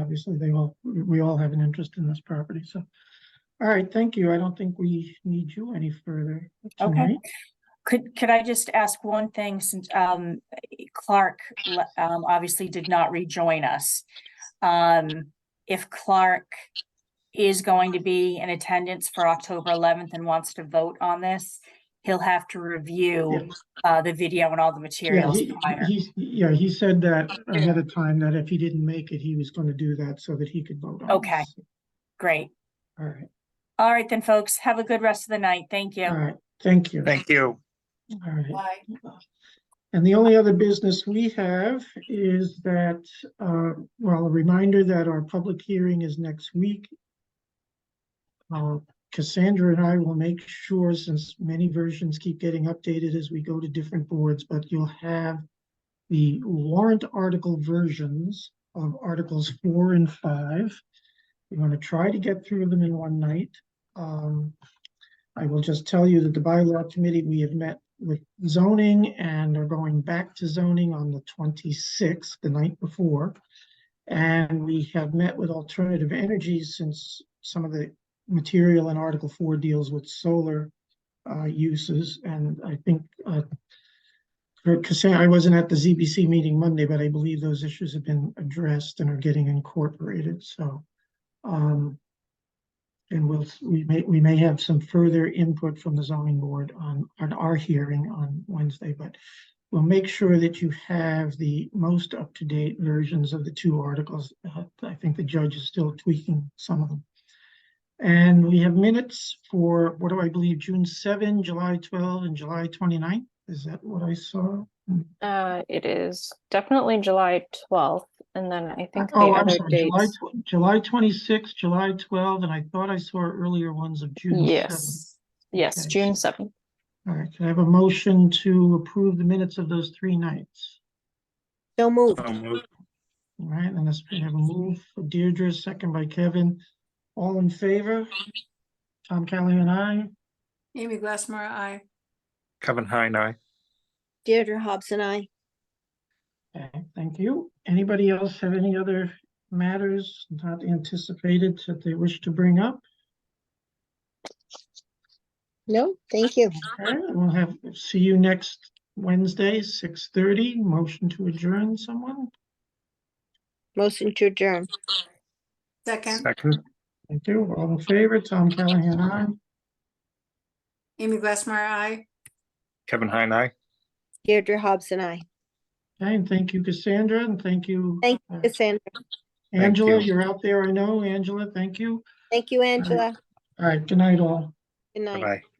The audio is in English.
obviously they all, we we all have an interest in this property, so. All right, thank you. I don't think we need you any further. tonight. Could, could I just ask one thing since, um, Clark, le- um, obviously did not rejoin us? Um, if Clark is going to be in attendance for October eleventh and wants to vote on this, he'll have to review, uh, the video and all the Yeah, materials he, prior. he's- yeah, he said that ahead of time, that if he didn't make it, he was gonna do that so that he could vote on it. Okay. Great. All right, All right then, folks, have a good rest of the night. Thank all you. right, thank you. Thank you. All right. Bye. And the only other business we have is that, uh, well, a reminder that our public hearing is next week. Uh, Cassandra and I will make sure, since many versions keep getting updated as we go to different boards, but you'll have the warrant article versions of Articles four and five. We're gonna try to get through them in one night. Um, I will just tell you that the bylaw committee, we have met with zoning and are going back to zoning on the twenty-sixth, the night before. And we have met with alternative energies since some of the material in Article Four deals with solar uh, uses, and I think uh, for Cassandra, I wasn't at the ZBC meeting Monday, but I believe those issues have been addressed and are getting incorporated, so. um, and we'll, we may, we may have some further input from the zoning board on, on our hearing on Wednesday, but we'll make sure that you have the most up-to-date versions of the two articles. Uh, I think the judge is still tweaking some of them. And we have minutes for, what do I believe, June seven, July twelve, and July 29th. Is that what I saw? Uh, it is definitely July twelfth, and then I think the Oh, I'm other sorry, July, dates. tw- July twenty-sixth, July twelve, and I thought I saw earlier ones of June seven. Yes, yes, Okay. June seventh. All right, can I have a motion to approve the minutes of those three nights? So moved. So moved. All right, and let's have a move for Deirdre, second by Kevin. All in favor? Tom Callahan, aye. Amy Glassmeyer, aye. Kevin Heine, aye. Deirdre Hobson, I. Okay, thank you. Anybody else have any other matters not anticipated that they wish to bring up? No, thank you. Okay, we'll have, see you next Wednesday, six thirty. Motion to adjourn, someone? Motion to adjourn. Second, Second, Thank you. All in favor? Tom Callahan, aye. Amy Glassmeyer, aye. Kevin Heine, aye. Deirdre Hobson, I. Okay, and thank you, Cassandra, and thank you. Thank uh, Cassandra. Thank Angela, you. you're out there, I know, Angela, thank you. Thank you, Angela. All right, good night all. Good night. Bye-bye.